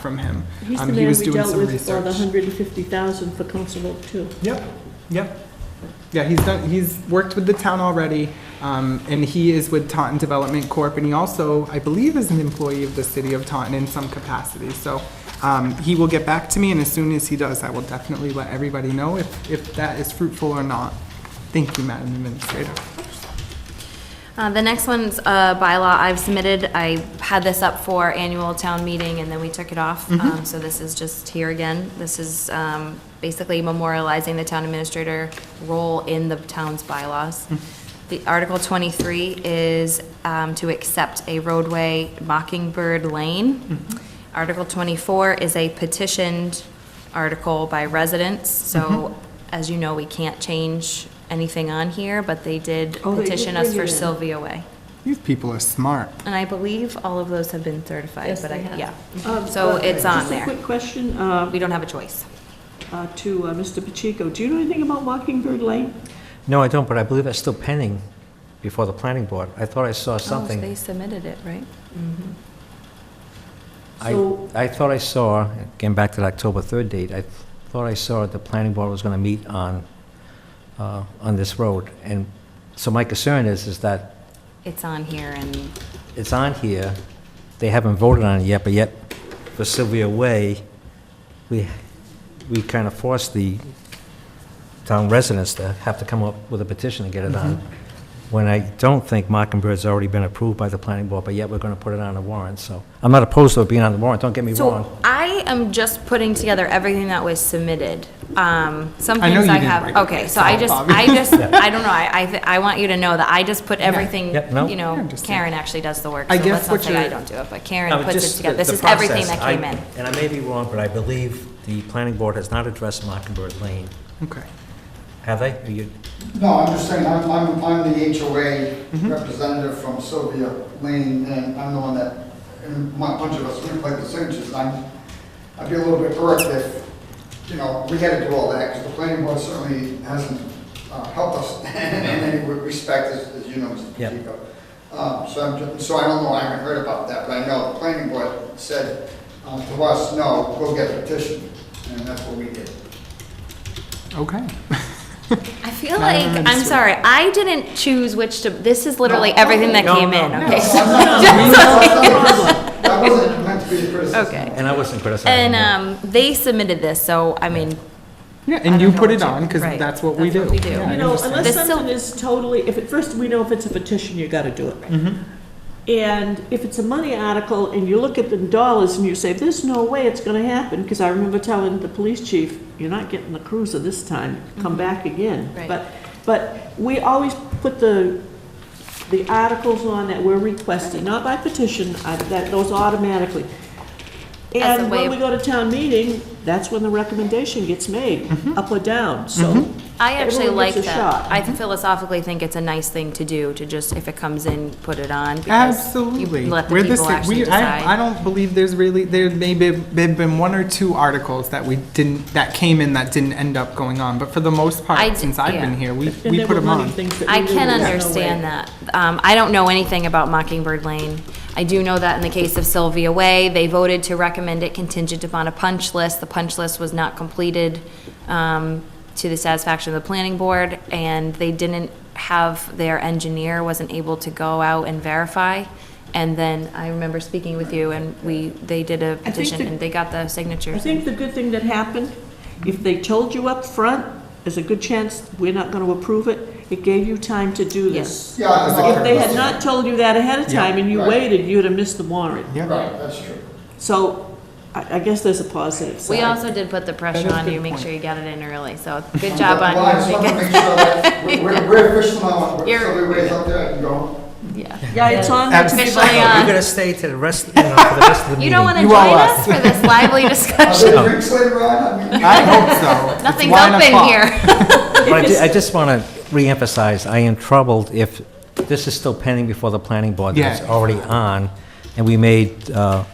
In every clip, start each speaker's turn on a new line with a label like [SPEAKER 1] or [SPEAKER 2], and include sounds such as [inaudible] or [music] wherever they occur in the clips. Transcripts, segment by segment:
[SPEAKER 1] from him.
[SPEAKER 2] He's the
[SPEAKER 1] Um, he
[SPEAKER 2] man
[SPEAKER 1] was
[SPEAKER 2] we
[SPEAKER 1] doing
[SPEAKER 2] dealt
[SPEAKER 1] some
[SPEAKER 2] with for the
[SPEAKER 1] research.
[SPEAKER 2] hundred and fifty thousand for Council Vote Two.
[SPEAKER 1] Yep, yep. Yeah, he's done, he's worked with the town already, um, and he is with Taunton Development Corp. And he also, I believe, is an employee of the city of Taunton in some capacity. So, um, he will get back to me, and as soon as he does, I will definitely let everybody know if, if that is fruitful or not. Thank you, Madam Administrator.
[SPEAKER 3] Uh, The next one's a bylaw I've submitted. I had this up for annual town meeting, and then we took it off.
[SPEAKER 2] Mm-hmm.
[SPEAKER 3] Um, So this is just here again. This is um, basically memorializing the town administrator role in the town's bylaws.
[SPEAKER 2] Hmm.
[SPEAKER 3] The Article 23 is um, to accept a roadway Mockingbird Lane.
[SPEAKER 2] Mm-hmm.
[SPEAKER 3] Article 24 is a petitioned article by residents. So,
[SPEAKER 2] Mm-hmm.
[SPEAKER 3] as you know, we can't change anything on here, but they did
[SPEAKER 2] Oh, they did
[SPEAKER 3] petition us
[SPEAKER 2] bring
[SPEAKER 3] for
[SPEAKER 2] it in.
[SPEAKER 3] Sylvia Way.
[SPEAKER 1] These people are smart.
[SPEAKER 3] And I believe all of those have been certified,
[SPEAKER 4] Yes,
[SPEAKER 3] but I,
[SPEAKER 4] they have.
[SPEAKER 3] yeah. Oh, So it's on
[SPEAKER 2] Uh, Just a
[SPEAKER 3] there.
[SPEAKER 2] quick question, uh,
[SPEAKER 3] We don't have a choice.
[SPEAKER 2] uh, to uh, Mr. Pacheco. Do you know anything about Mockingbird Lane?
[SPEAKER 5] No, I don't, but I believe that's still pending before the planning board. I thought I
[SPEAKER 3] Oh,
[SPEAKER 5] saw something.
[SPEAKER 3] submitted it, right? Mm-hmm.
[SPEAKER 5] I,
[SPEAKER 2] So,
[SPEAKER 5] I thought I saw, again, back to the October 3rd date, I thought I saw the planning board was going to meet on, uh, on this road. And so my concern is, is that
[SPEAKER 3] It's on here and,
[SPEAKER 5] it's on here, they haven't voted on it yet, but yet for Sylvia Way, we, we kind of forced the town residents to have to come up with a petition to get it on. When I don't think Mockingbird's already been approved by the planning board, but yet we're going to put it on the warrant, so. I'm not opposed to it being on the warrant, don't get me wrong.
[SPEAKER 3] so I am just putting together everything that was submitted. Um, some
[SPEAKER 1] I know
[SPEAKER 3] things
[SPEAKER 1] you
[SPEAKER 3] I
[SPEAKER 1] didn't
[SPEAKER 3] have,
[SPEAKER 1] write it
[SPEAKER 3] okay, so I just,
[SPEAKER 1] Bobby.
[SPEAKER 3] I
[SPEAKER 5] [laughs]
[SPEAKER 3] just, I don't know, I, I, th- I want you to know that I just put everything,
[SPEAKER 5] Yep, no.
[SPEAKER 3] you
[SPEAKER 1] I
[SPEAKER 3] know,
[SPEAKER 1] understand.
[SPEAKER 3] Karen actually does the work.
[SPEAKER 1] I
[SPEAKER 3] so
[SPEAKER 1] guess
[SPEAKER 3] let's not
[SPEAKER 1] what
[SPEAKER 3] say I
[SPEAKER 1] you're-
[SPEAKER 3] don't do it, but
[SPEAKER 5] No,
[SPEAKER 3] Karen
[SPEAKER 5] but
[SPEAKER 3] puts it
[SPEAKER 5] just
[SPEAKER 3] together.
[SPEAKER 5] the-
[SPEAKER 3] This
[SPEAKER 5] the
[SPEAKER 3] is everything
[SPEAKER 5] process.
[SPEAKER 3] that came
[SPEAKER 5] I-
[SPEAKER 3] in.
[SPEAKER 5] And I may be wrong, but I believe the planning board has not addressed Mockingbird Lane.
[SPEAKER 1] Okay.
[SPEAKER 5] Have they? Are you-
[SPEAKER 6] No, I'm just saying, I'm, I'm, I'm the HOA representative from Sylvia Lane, and I'm the one that, and my bunch of us, we played the signatures, and I'm, I'd be a little bit hurt if, you know, we had to do all that, because the planning board certainly hasn't uh, helped us [laughs] in any respect, as, as you know, Mr.
[SPEAKER 5] Yeah.
[SPEAKER 6] Pacheco. Um, so I'm, ju- so I don't know, I haven't heard about that, but I know the planning board said uh, to us, no, go get a petition, and that's what we did.
[SPEAKER 1] Okay. [laughs]
[SPEAKER 3] I feel
[SPEAKER 1] Not
[SPEAKER 3] like,
[SPEAKER 1] on the
[SPEAKER 3] I'm
[SPEAKER 1] minister.
[SPEAKER 3] sorry, I didn't choose which to, this is literally everything that
[SPEAKER 5] No,
[SPEAKER 3] came
[SPEAKER 5] no,
[SPEAKER 3] in,
[SPEAKER 5] no.
[SPEAKER 3] okay?
[SPEAKER 6] No,
[SPEAKER 3] so-
[SPEAKER 6] I'm not- [laughs] That wasn't meant to be a criticism.
[SPEAKER 3] Okay.
[SPEAKER 5] And I wasn't
[SPEAKER 3] And
[SPEAKER 5] criticizing them.
[SPEAKER 3] um, they submitted this, so, I mean,
[SPEAKER 1] Yeah,
[SPEAKER 3] I
[SPEAKER 1] and
[SPEAKER 3] don't
[SPEAKER 1] you
[SPEAKER 3] know
[SPEAKER 1] put
[SPEAKER 3] what
[SPEAKER 1] it
[SPEAKER 3] you-
[SPEAKER 1] on, because
[SPEAKER 3] right,
[SPEAKER 1] that's what we
[SPEAKER 3] that's
[SPEAKER 1] do.
[SPEAKER 3] what we do.
[SPEAKER 1] Yeah, I
[SPEAKER 2] you know,
[SPEAKER 1] understand.
[SPEAKER 2] unless
[SPEAKER 3] This still-
[SPEAKER 2] something is totally, if, at first, we know if it's a petition, you gotta do it.
[SPEAKER 3] Mm-hmm.
[SPEAKER 2] And if it's a money article, and you look at the dollars, and you say, there's no way it's gonna happen, because I remember telling the police chief, you're not getting the cruiser this time, come back again.
[SPEAKER 3] Mm-hmm. Right.
[SPEAKER 2] But, but we always put the, the articles on that we're requesting, not by petition, I- that goes automatically.
[SPEAKER 3] As a
[SPEAKER 2] And when
[SPEAKER 3] way of-
[SPEAKER 2] we go to town meeting, that's when the recommendation gets made,
[SPEAKER 3] Mm-hmm.
[SPEAKER 2] up or down, so.
[SPEAKER 3] I actually
[SPEAKER 2] Everyone
[SPEAKER 3] like
[SPEAKER 2] gets a
[SPEAKER 3] that.
[SPEAKER 2] shot.
[SPEAKER 3] I
[SPEAKER 1] Mm-hmm.
[SPEAKER 3] philosophically think it's a nice thing to do, to just, if it comes in, put it on. because you
[SPEAKER 1] Absolutely.
[SPEAKER 3] Let the
[SPEAKER 1] We're the
[SPEAKER 3] people
[SPEAKER 1] sa-
[SPEAKER 3] actually
[SPEAKER 1] we- I, I
[SPEAKER 3] decide.
[SPEAKER 1] don't believe there's really, there may be, there've been one or two articles that we didn't, that came in that didn't end up going on, but for the most
[SPEAKER 3] I
[SPEAKER 1] part,
[SPEAKER 3] d-
[SPEAKER 1] since I've been
[SPEAKER 3] yeah.
[SPEAKER 1] here, we,
[SPEAKER 2] And
[SPEAKER 1] we
[SPEAKER 2] there
[SPEAKER 1] put
[SPEAKER 2] were
[SPEAKER 1] them
[SPEAKER 2] money
[SPEAKER 1] on.
[SPEAKER 2] things that
[SPEAKER 3] I
[SPEAKER 2] we
[SPEAKER 3] can
[SPEAKER 2] knew there was no
[SPEAKER 3] understand
[SPEAKER 2] way.
[SPEAKER 3] that. Um, I don't know anything about Mockingbird Lane. I do know that in the case of Sylvia Way, they voted to recommend it contingent upon a punch list. The punch list was not completed um, to the satisfaction of the planning board, and they didn't have, their engineer wasn't able to go out and verify. And then I remember speaking with you, and we, they did a petition,
[SPEAKER 2] the-
[SPEAKER 3] and they got the signatures.
[SPEAKER 2] I think the good thing that happened, if they told you up front, there's a good chance we're not going to approve it, it gave you time to do this.
[SPEAKER 6] Yeah, I know.
[SPEAKER 2] If they had not told you that ahead of
[SPEAKER 1] Yeah.
[SPEAKER 2] time and you
[SPEAKER 6] Right.
[SPEAKER 2] waited, you'd have missed the warrant.
[SPEAKER 6] Right, that's true.
[SPEAKER 2] So I I guess there's a positive
[SPEAKER 3] We
[SPEAKER 2] side.
[SPEAKER 3] also did put the
[SPEAKER 1] That
[SPEAKER 3] pressure
[SPEAKER 1] is a
[SPEAKER 3] on
[SPEAKER 1] good
[SPEAKER 3] you, make
[SPEAKER 1] point.
[SPEAKER 3] sure you got it in early, so good
[SPEAKER 6] I'm
[SPEAKER 3] job
[SPEAKER 6] glad- Well, I just
[SPEAKER 3] on you.
[SPEAKER 6] want to make sure that we're- we're, we're official now, so
[SPEAKER 3] You're-
[SPEAKER 6] everybody's out there, I can go.
[SPEAKER 3] [laughs] Yeah.
[SPEAKER 2] Yeah, it's on there.
[SPEAKER 1] Abs-
[SPEAKER 3] Officially uh,
[SPEAKER 5] You're
[SPEAKER 3] on.
[SPEAKER 5] gonna stay to the rest, you know, for the rest of the
[SPEAKER 3] [laughs]
[SPEAKER 5] meeting.
[SPEAKER 3] You don't want to
[SPEAKER 1] You
[SPEAKER 3] join
[SPEAKER 1] all
[SPEAKER 3] us for this
[SPEAKER 1] [laughs]
[SPEAKER 3] lively
[SPEAKER 6] Are
[SPEAKER 3] discussion?
[SPEAKER 6] there drinks later on? I mean,
[SPEAKER 1] I hope so. It's
[SPEAKER 3] Nothing's
[SPEAKER 1] wine
[SPEAKER 3] open
[SPEAKER 1] o'clock.
[SPEAKER 3] here.
[SPEAKER 5] But I ju- I just want to reemphasize, I am troubled if this is still pending before the planning board that's
[SPEAKER 1] Yeah.
[SPEAKER 5] already on, and we made uh,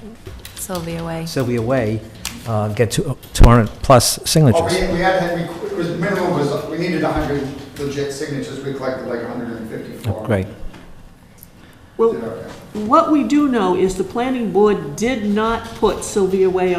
[SPEAKER 3] Sylvia Way.
[SPEAKER 5] Sylvia Way uh, get 200-plus
[SPEAKER 6] Oh, we,
[SPEAKER 5] signatures.
[SPEAKER 6] we had, had- we, it was, minimum was, we needed hundred legit signatures, we collected like hundred and fifty-four.
[SPEAKER 5] Great.
[SPEAKER 2] Well, what we do know is the planning board did not put Sylvia Way